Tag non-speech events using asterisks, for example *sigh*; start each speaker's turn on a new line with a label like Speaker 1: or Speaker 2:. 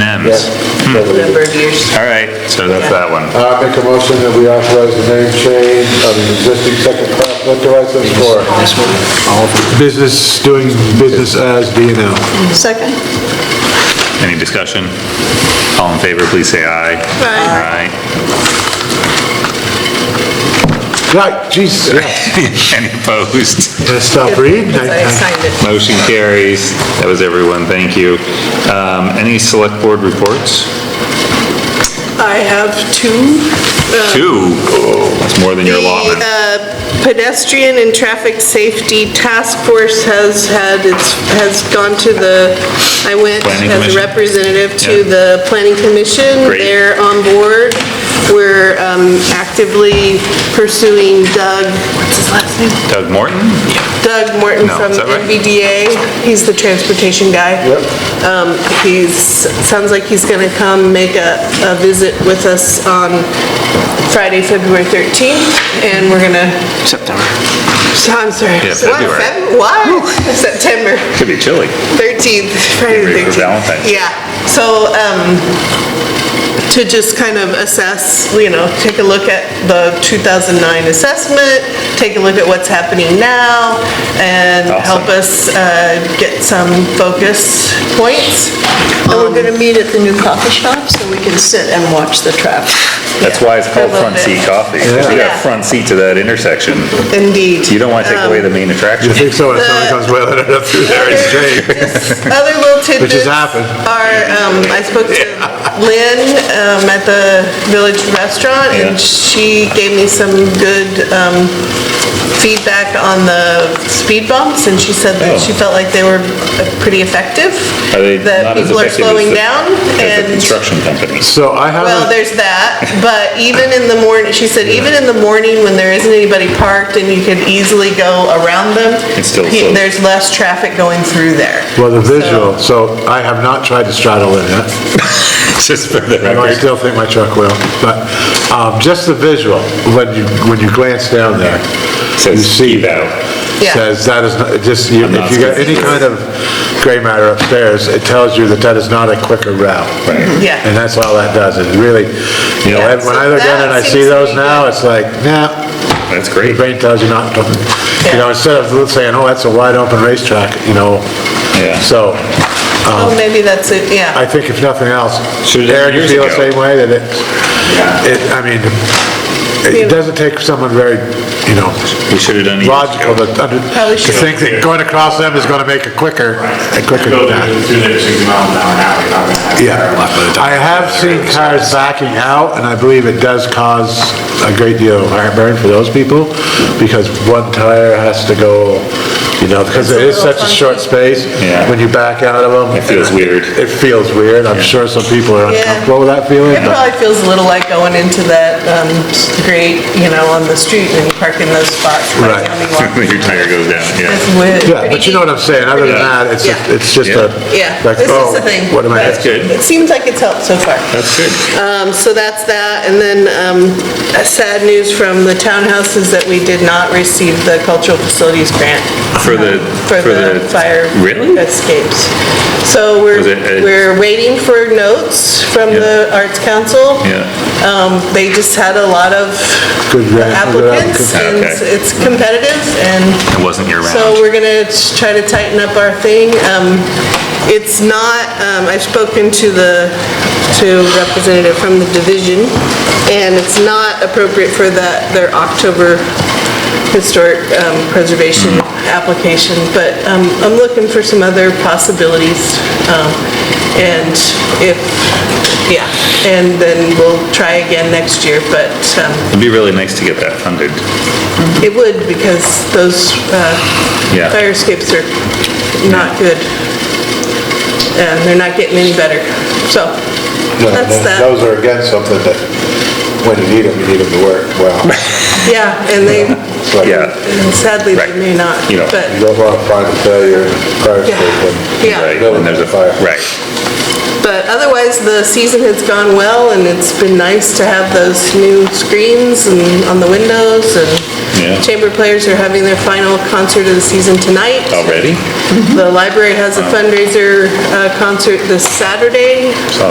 Speaker 1: Yes.
Speaker 2: number of years.
Speaker 1: All right, so that's that one.
Speaker 3: I make a motion that we authorize the name change of the existing second class liquor license for business, doing business as B and L.
Speaker 2: Second?
Speaker 1: Any discussion? All in favor, please say aye.
Speaker 2: Aye.
Speaker 1: Aye. *laughs*
Speaker 3: Right, Jesus, yes.
Speaker 1: Any opposed?
Speaker 3: Gotta stop reading.
Speaker 2: Because I signed it.
Speaker 1: Motion carries. That was everyone, thank you. Um, Any select board reports?
Speaker 2: I have two.
Speaker 1: Two. Oh, That's more than your allotment.
Speaker 2: The uh, pedestrian and traffic safety task force has had, its has gone to the, I went
Speaker 1: Planning
Speaker 2: as a
Speaker 1: Commission?
Speaker 2: representative to
Speaker 1: Yeah.
Speaker 2: the planning commission.
Speaker 1: Great.
Speaker 2: They're on board. We're um, actively pursuing Doug, what's his last name?
Speaker 1: Doug Morton?
Speaker 2: Doug Morton
Speaker 1: No,
Speaker 2: from
Speaker 1: is that right?
Speaker 2: NVDA. He's the transportation guy. Yep. Um, he's, sounds like he's gonna come make a, a visit with us on Friday, February 13th, and we're gonna... September. I'm sorry.
Speaker 1: Yeah,
Speaker 2: What,
Speaker 1: February.
Speaker 2: Feb- What? September.
Speaker 1: Could be chilly.
Speaker 2: 13th, Friday
Speaker 1: ready
Speaker 2: the
Speaker 1: for
Speaker 2: 13th.
Speaker 1: Valentine's.
Speaker 2: Yeah, so, um, to just kind of assess, you know, take a look at the 2009 assessment, take a look at what's happening now, and help us uh, get some focus points. Um,
Speaker 4: And we're going to meet at the new coffee shop so we can sit and watch the traffic.
Speaker 1: That's why it's called
Speaker 2: I love
Speaker 1: front
Speaker 2: it.
Speaker 1: seat coffee, 'cause you got
Speaker 2: Yeah.
Speaker 1: front seat to that intersection.
Speaker 2: Indeed.
Speaker 1: You don't want to take away the main attraction.
Speaker 3: You
Speaker 2: Um,
Speaker 3: think so, when someone comes wailing it up through there, it's
Speaker 2: *laughs*
Speaker 3: great.
Speaker 2: Other
Speaker 1: *laughs*
Speaker 2: little tidbits.
Speaker 3: has happened.
Speaker 2: Are, um, I spoke to Lynn, um, at the Village Restaurant,
Speaker 1: Yeah.
Speaker 2: and she gave me some good, um, feedback on the speed bumps, and she said
Speaker 1: Oh.
Speaker 2: that she felt like they were uh, pretty effective.
Speaker 1: Are they
Speaker 2: That
Speaker 1: not as
Speaker 2: people are
Speaker 1: effective as
Speaker 2: slowing
Speaker 1: the-
Speaker 2: down,
Speaker 1: As the
Speaker 2: and,
Speaker 1: construction companies. *laughs*
Speaker 3: So I
Speaker 2: well,
Speaker 3: haven't,
Speaker 2: there's that, but even in the morning, she said, even in the morning when there isn't anybody parked and you could easily go around them,
Speaker 1: It's still
Speaker 2: pe-
Speaker 1: slow.
Speaker 2: there's less traffic going through there.
Speaker 3: well, the visual, so I have not tried to straddle it yet.
Speaker 1: Just for the
Speaker 3: I
Speaker 1: record.
Speaker 3: still think my truck will, but um, just the visual, when you, when you glance down there, you
Speaker 1: Says
Speaker 3: see
Speaker 1: eval.
Speaker 3: that.
Speaker 2: Yeah.
Speaker 3: Says that is, not- it just, you-
Speaker 1: I'm not
Speaker 3: if you got any
Speaker 1: speaking.
Speaker 3: kind of gray matter upstairs, it tells you that that is not a quicker route.
Speaker 2: Yeah.
Speaker 3: And that's all that does, it really, you know,
Speaker 2: Yeah,
Speaker 3: and when I
Speaker 2: so
Speaker 3: look down
Speaker 2: that
Speaker 3: and I see
Speaker 2: seems to
Speaker 3: those
Speaker 2: be
Speaker 3: now,
Speaker 2: good.
Speaker 3: it's like, nah,
Speaker 1: That's
Speaker 3: your
Speaker 1: great.
Speaker 3: brain tells you not to, you
Speaker 2: Yeah.
Speaker 3: know, instead of saying, oh, that's a wide open racetrack, you know,
Speaker 1: Yeah.
Speaker 3: so,
Speaker 2: Oh, maybe that's it, yeah.
Speaker 3: um, I think if nothing else,
Speaker 1: Should've done it
Speaker 3: Aaron, you
Speaker 1: years
Speaker 3: feel the
Speaker 1: ago.
Speaker 3: same way, that it, it, I mean, it doesn't take someone very, you know,
Speaker 1: We should have done it.
Speaker 3: logical to, under-
Speaker 1: Oh,
Speaker 2: Probably
Speaker 3: to
Speaker 2: should.
Speaker 3: think that going across them is gonna make it quicker, and quicker than
Speaker 5: Building
Speaker 3: that.
Speaker 5: is two to six miles an hour now, you're not gonna have.
Speaker 3: Yeah. I have seen cars backing out, and I believe it does cause a great deal of heartburn for those people, because one tire has to go, you know, because it is such a short space,
Speaker 1: Yeah.
Speaker 3: when you back out of them.
Speaker 1: It feels weird.
Speaker 3: It feels weird, I'm sure some people are
Speaker 2: Yeah.
Speaker 3: uncomfortable with that feeling,
Speaker 2: It
Speaker 3: but-
Speaker 2: probably feels a little like going into that um, street, you know, on the street and you park in those spots. by the
Speaker 3: Right.
Speaker 1: *laughs*
Speaker 2: time you walk.
Speaker 1: *laughs* Your tire goes down,
Speaker 2: It's
Speaker 1: yeah.
Speaker 2: weird.
Speaker 3: Yeah, but you know what I'm saying, other than that, it's, a-
Speaker 2: Yeah.
Speaker 3: it's just a,
Speaker 2: Yeah,
Speaker 3: like,
Speaker 2: this is
Speaker 3: oh,
Speaker 2: the thing.
Speaker 3: what am I?
Speaker 2: but
Speaker 1: That's good.
Speaker 2: It seems like it's helped so far.
Speaker 1: That's good.
Speaker 2: Um, So that's that, and then um, uh, sad news from the townhouse is that we did not receive the cultural facilities grant.
Speaker 1: For the-
Speaker 2: For
Speaker 1: for
Speaker 2: the
Speaker 1: the-
Speaker 2: fire
Speaker 1: Really?
Speaker 2: escapes. So we're,
Speaker 1: Was it a-
Speaker 2: we're waiting for notes from
Speaker 1: Yeah.
Speaker 2: the Arts Council.
Speaker 1: Yeah.
Speaker 2: Um, They just had a lot of
Speaker 3: Good grant, good
Speaker 2: applicants, and
Speaker 1: applicants. Okay.
Speaker 2: it's competitive, and
Speaker 1: It wasn't your round.
Speaker 2: so we're gonna try to tighten up our thing. Um, It's not, um, I've spoken to the, to representative from the division, and it's not appropriate for that, their October historic um, preservation application, but um, I'm looking for some other possibilities. um, And if, yeah, and then we'll try again next year, but um,
Speaker 1: It'd be really nice to get that funded.
Speaker 2: it would, because those uh,
Speaker 1: Yeah.
Speaker 2: fire escapes are not good. And they're not getting any better. So,
Speaker 3: No,
Speaker 2: that's
Speaker 3: no,
Speaker 2: that.
Speaker 3: Those are again something that, when you need them, you need them to work well.
Speaker 2: Yeah, and they,
Speaker 3: It's like,
Speaker 1: Yeah,
Speaker 2: and sadly, they may not,
Speaker 1: You know,
Speaker 3: You
Speaker 2: but,
Speaker 3: don't want to find a failure in a fire
Speaker 2: Yeah.
Speaker 3: escape
Speaker 2: Yeah.
Speaker 1: right.
Speaker 3: when
Speaker 1: When there's a fire. Right.
Speaker 2: but otherwise, the season has gone well, and it's been nice to have those new screens and on the windows,
Speaker 1: Yeah.
Speaker 2: and chamber players are having their final concert of the season tonight.
Speaker 1: Oh. Already?
Speaker 2: The library has a fundraiser uh, concert this Saturday.
Speaker 1: Saw